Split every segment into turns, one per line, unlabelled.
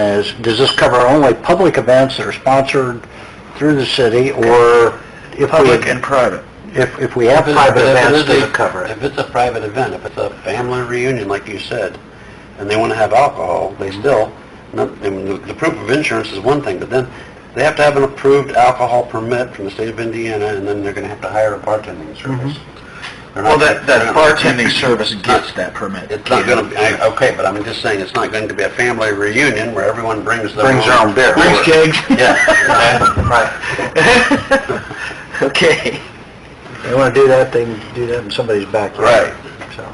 Is, does this cover only public events that are sponsored through the city, or if
Public and
we,
private.
if, if we have private
But if
events,
is
does
a-
it cover it?
If it's a private event, if it's a family reunion, like you said, and they want to have alcohol, they still, no- I mean, the the proof of insurance is one thing, but then they have to have an approved alcohol permit from the state of Indiana, and then they're going to have to hire a bartending service. They're
Well,
not-
that,
they're
Uh,
that
not-
bartending service gets that permit.
It's not going to, I, okay, but I'm just saying, it's not going to be a family reunion where everyone brings their own...
Brings their own beer.
Brings kegs.
Yeah. okay, Right.
Okay.
They want to do that, they can do that in somebody's backyard.
Right.
So,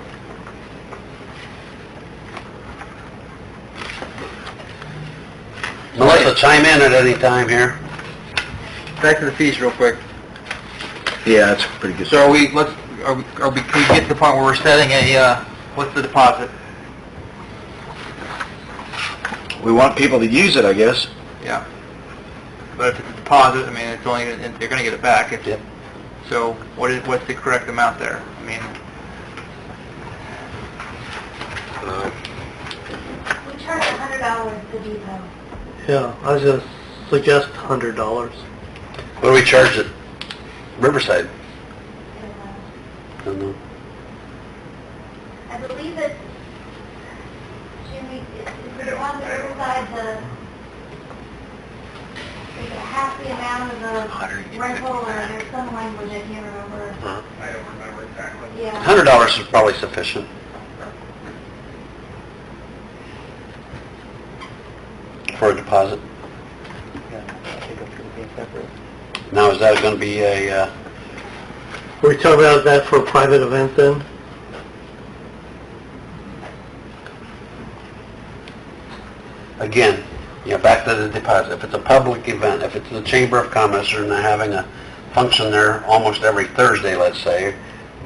Melissa, chime in at any time here.
Back to the fees real quick.
Yeah, that's pretty good.
So are we, let's, are we, are we, can we get to the point where we're setting a, uh, what's the deposit?
We want people to use it, I guess.
Yeah. But if it's a deposit, I mean, it's only, and they're gonna get it back. It's-
Yep.
So what is, what's the correct amount there? I mean,
We charge a hundred dollars to depot.
Yeah, I was gonna suggest hundred dollars.
What do we charge at Riverside?
and, uh,
I don't know.
I believe it's, Jimmy, is is it on the Riverside, the, like half the amount of the rental, or there's some language I can't remember.
I don't remember exactly.
Yeah,
Hundred dollars is probably sufficient. For a deposit. Now, is that gonna be a, uh,
Were you talking about that for a private event then?
again, you know, back to the deposit, if it's a public event, if it's the Chamber of Commerce, and they're having a function there almost every Thursday, let's say,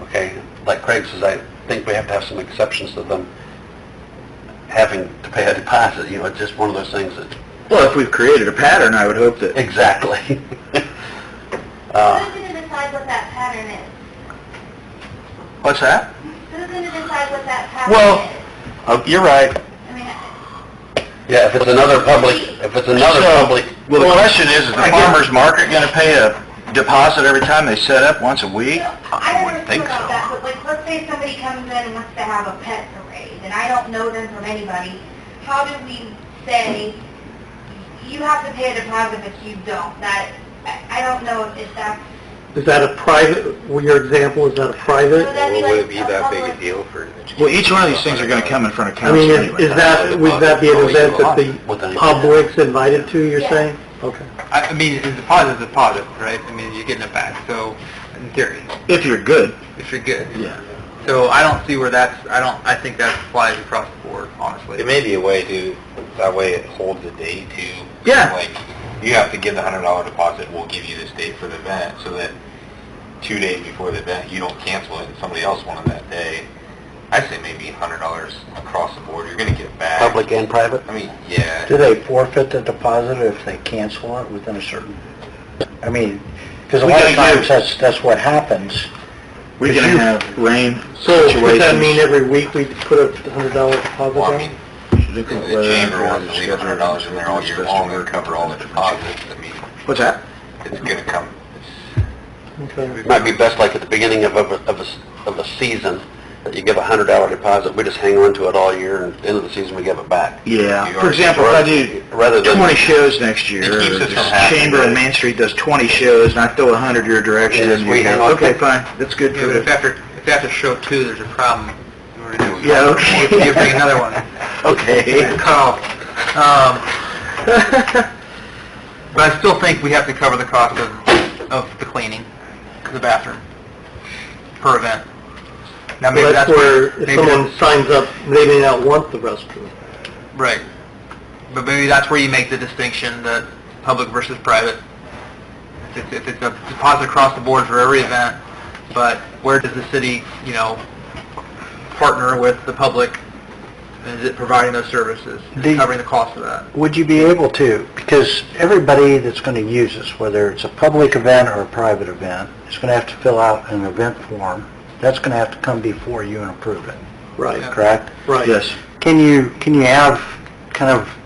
okay, like Craig says, I think we have to have some exceptions to them having to pay a deposit, you know, it's just one of those things that,
Well, if we've created a pattern, I would hope that,
exactly.
who's gonna decide what that pattern is?
what's that?
Who's gonna decide what that
Well-
pattern is?
Oh, you're right.
I mean, I-
Yeah, if it's another public, if it's another
So-
public,
Well, the question is, is the farmer's market gonna pay a deposit every time they set up, once a week?
I don't
wouldn't
know
think
about
so.
that, but like, let's say somebody comes in and wants to have a pet parade, and I don't know them from anybody, how do we say, you have to pay a deposit if you don't? That, I I don't know if that's,
Is that a private, well, your example, is that a
would
private?
that be like a public?
deal for?
Well, each one of these things are gonna come in front of
I
council
mean,
anyway.
is that, would that be an event that the public's invited to, you're
Yeah.
saying? Okay.
I, I mean, a deposit is a deposit, right? I mean, you're getting it back, so in theory,
If you're good.
if you're good.
Yeah.
So I don't see where that's, I don't, I think that applies across the board, honestly.
may be a way to, that way it holds a date to.
Yeah.
Like, you have to give the hundred dollar deposit, we'll give you this date for the event, so that two days before the event, you don't cancel it, and somebody else wanted that day. I say maybe a hundred dollars across the board, you're gonna get it back. Public and private? I mean, yeah.
do they forfeit the deposit if they cancel it within a certain, I mean, because a
We
lot of
gotta
times
give-
that's, that's what happens.
We're gonna have rain
So does that mean
situations.
every week we put a hundred dollar deposit
Well,
down?
I mean,
uh,
if the chamber wants to leave a hundred dollars in there all year long and cover all the deposits, I mean,
What's that?
it's gonna come,
Okay.
It might be best like at the beginning of, of, of a, of a season, that you give a hundred dollar deposit, we just hang on to it all year, and at the end of the season, we give it back.
Yeah. For example, if I do
Rather than,
20 shows next year,
It keeps
or
it
the
from happening.
Chamber on Main Street does 20 shows, and I throw 100 your direction,
Yes,
and
we
you
hang
go,
on.
okay, fine, that's good
Yeah,
for
but if
the...
after, if after show two, there's a problem, we're gonna-
Yeah, okay.
you bring another one.
Okay.
cut off. Um, But I still think we have to cover the cost of, of the cleaning, the bathroom, per event. Now, maybe
Well, that's
that's
where, if
maybe
someone signs up, they may not want the restroom.
that's- Right. But maybe that's where you make the distinction that public versus private. If it's- If it's a deposit across the board for every event, but where does the city, you know, partner with the public? Is it providing those services? Is
The-
it covering the cost of that?
Would you be able to, because everybody that's going to use this, whether it's a public event or a private event, is going to have to fill out an event form. That's going to have to come before you and approve it,
Right,
Yeah.
correct?
right.
Yes.
Can you, can you have kind of